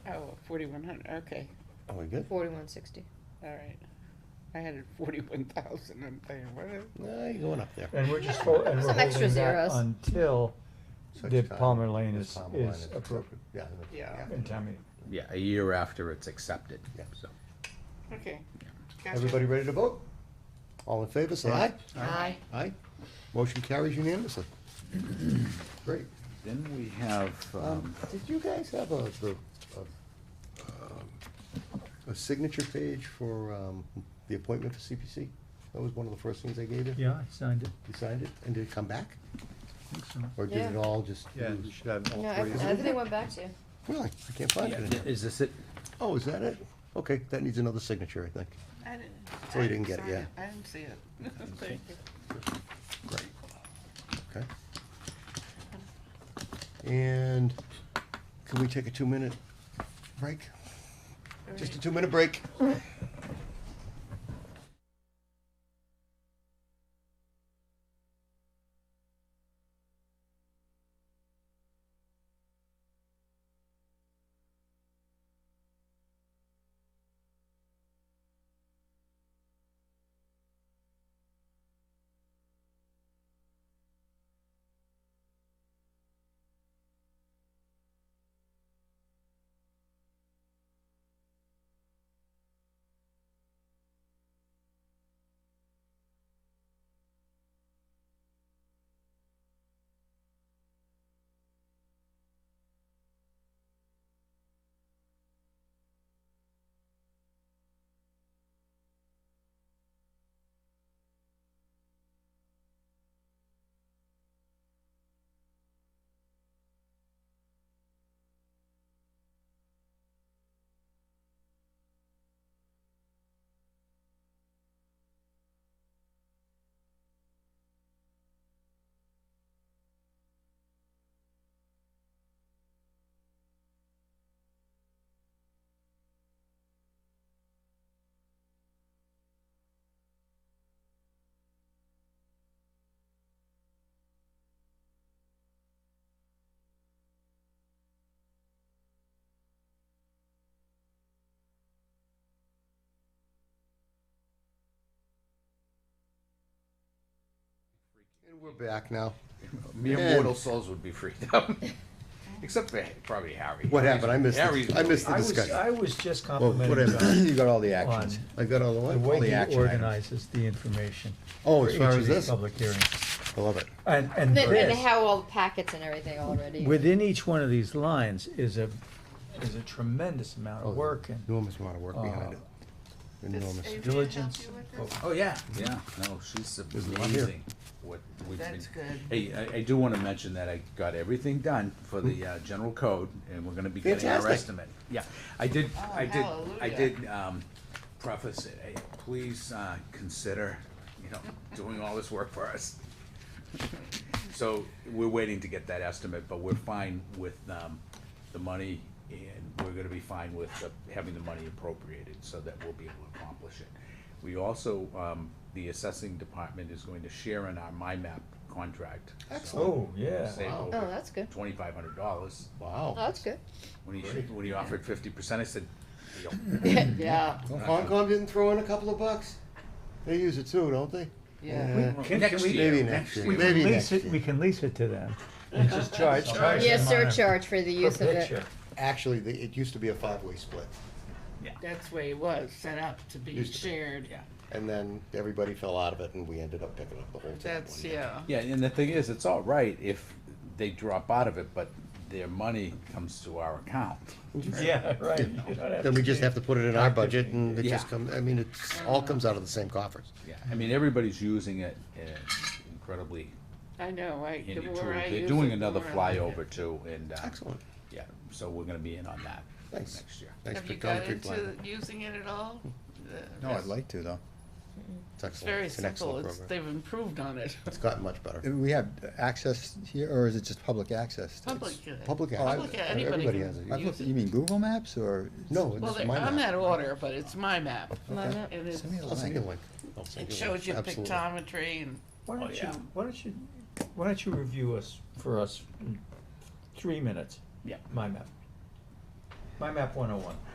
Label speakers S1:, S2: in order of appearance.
S1: Oh, forty-one hundred, okay,
S2: Are we good?
S3: Forty-one sixty.
S1: all right. I had it forty-one thousand, I'm thinking, what is?
S2: No, you're going up there.
S4: And we're just, hol- and we're
S3: Some extra
S4: holding that
S3: zeros.
S4: until
S2: Such
S4: the
S2: time
S4: Palmer Lane
S2: as
S4: is,
S2: Palmer Lane
S4: is approved
S2: Yeah.
S1: Yeah.
S4: in town meeting.
S5: Yeah, a year after it's accepted,
S2: Yeah.
S5: so.
S1: Okay. Gotcha.
S2: Everybody ready to vote? All in favor, say aye.
S3: Aye.
S2: Aye. Motion carries unanimously. Great.
S5: Then we have,
S2: Um,
S5: um,
S2: Did you guys have a, the, a, um, a signature page for, um, the appointment for CPC? That was one of the first things I gave you?
S4: Yeah, I signed it.
S2: You signed it, and did it come back? Or did it
S3: Yeah.
S2: all just?
S5: yeah,
S2: lose?
S5: you should have all
S3: No,
S5: three.
S3: ev- everything went back to you.
S2: Really? I can't find it.
S5: Yeah, Is this it?
S2: Oh, is that it? Okay, that needs another signature, I think.
S1: I didn't. I
S2: So Oh, you didn't get it,
S1: sign
S2: yeah.
S1: I didn't see it. Thank you.
S2: Great. Okay. And can we take a two-minute break? Just a two-minute break? And we're back now.
S5: Mere
S2: Man.
S5: mortal souls would be freed up. Except for probably Harry.
S2: What happened? I missed the-
S5: Harry's
S2: I missed the
S4: I
S5: really-
S4: was,
S2: discussion.
S4: I was just
S2: Well,
S4: complimenting
S2: whatever,
S4: John
S2: you got all the
S4: on
S2: actions. I got all the
S4: the
S2: what? All
S4: way
S2: the
S4: he
S2: action items.
S4: organizes the information.
S2: Oh,
S4: for
S2: as
S4: each
S2: far
S4: of
S2: as
S4: these
S2: this?
S4: Public hearings.
S2: I love it.
S4: And, and
S3: And they
S4: this,
S3: have all the packets and everything already.
S4: within each one of these lines is a, is a tremendous amount
S2: Oh,
S4: of work and
S2: Enormous amount of work behind it.
S1: Does
S2: Enormous.
S1: Adrian help
S4: diligence.
S1: you with
S4: Oh,
S1: this?
S5: Oh, yeah, yeah, no, she's
S2: There's a lot here.
S5: amazing. What we've been-
S1: That's good.
S5: Hey, I, I do wanna mention that I got everything done for the, uh, general code, and we're gonna be getting our
S2: Hmm. Fantastic.
S5: estimate. Yeah, I did,
S1: Oh,
S5: I did, I
S1: hallelujah.
S5: did, um, preface it, hey, please, uh, consider, you know, doing all this work for us. So, we're waiting to get that estimate, but we're fine with, um, the money, and we're gonna be fine with the- having the money appropriated, so that we'll be able to accomplish it. We also, um, the assessing department is going to share in our MyMap contract. so
S4: Oh, yeah.
S5: Save
S3: Oh,
S5: over
S3: that's good.
S5: twenty-five hundred dollars.
S3: Oh,
S2: Wow.
S3: that's good.
S5: When he, when he offered fifty percent, I said, "Deal."
S3: Yeah.
S2: Hong Kong didn't throw in a couple of bucks? They use it too, don't they? Uh,
S1: Yeah.
S4: Can-
S5: Next
S4: can we-
S5: year,
S2: Maybe next year.
S4: We
S2: Maybe
S4: can
S2: next
S4: lease it,
S2: year.
S4: we can lease it to them. And just charge, charge
S3: Yeah,
S4: them on a-
S3: surcharge for the
S4: per
S3: use of it.
S4: picture.
S2: Actually, the- it used to be a five-way split,
S1: That's the way it was, set up to be
S2: Used to be.
S1: shared.
S5: Yeah.
S2: and then everybody fell out of it, and we ended up picking up the whole thing.
S1: That's, yeah.
S5: Yeah, and the thing is, it's all right if they drop out of it, but their money comes to our account.
S4: Yeah, right. You don't
S2: Then
S4: have to
S2: we just
S4: pay.
S2: have to put it in our budget, and it just
S5: Yeah.
S2: comes, I mean, it all comes out of the same coffers.
S5: Yeah, I mean, everybody's using it uh, incredibly
S1: I know, I, the
S5: handy tool.
S1: more I use it.
S5: They're doing
S1: the
S5: another
S1: more I like it.
S5: flyover too, and, uh,
S2: Excellent.
S5: yeah, so we're gonna be in on that
S2: Thanks.
S5: next year.
S2: Thanks
S1: Have
S2: for
S1: you got
S2: coming, Big
S1: into
S2: Blind.
S1: using it at all? The- it's-
S6: like to though.
S2: It's
S1: It's
S2: excellent.
S1: very
S2: It's an
S1: simple,
S2: excellent
S1: it's,
S2: program.
S1: they've improved on it.
S2: It's gotten much better.
S6: Do we have access here, or is it just public access? to it?
S1: Public. uh,
S2: Public
S6: Oh, I-
S2: access.
S1: Public, uh, anybody
S2: Everybody
S1: can
S2: has it.
S6: I've
S1: use
S6: looked,
S1: it.
S6: you mean Google Maps or?
S2: No,
S1: Well,
S2: it's
S1: they're-
S2: my
S1: I'm
S2: map.
S1: out of order, but it's my map.
S3: Mine up.
S1: And it's,
S6: Send me a
S2: I'll send you a
S6: link.
S2: link. I'll send
S1: it
S2: you a link.
S1: shows you
S2: Absolutely.
S1: pictometry and,
S4: Why
S5: Oh,
S4: don't you,
S5: yeah.
S4: why don't you, why don't you review us, for us, in three mm, minutes?
S5: Yeah.
S4: My map. My map one oh one.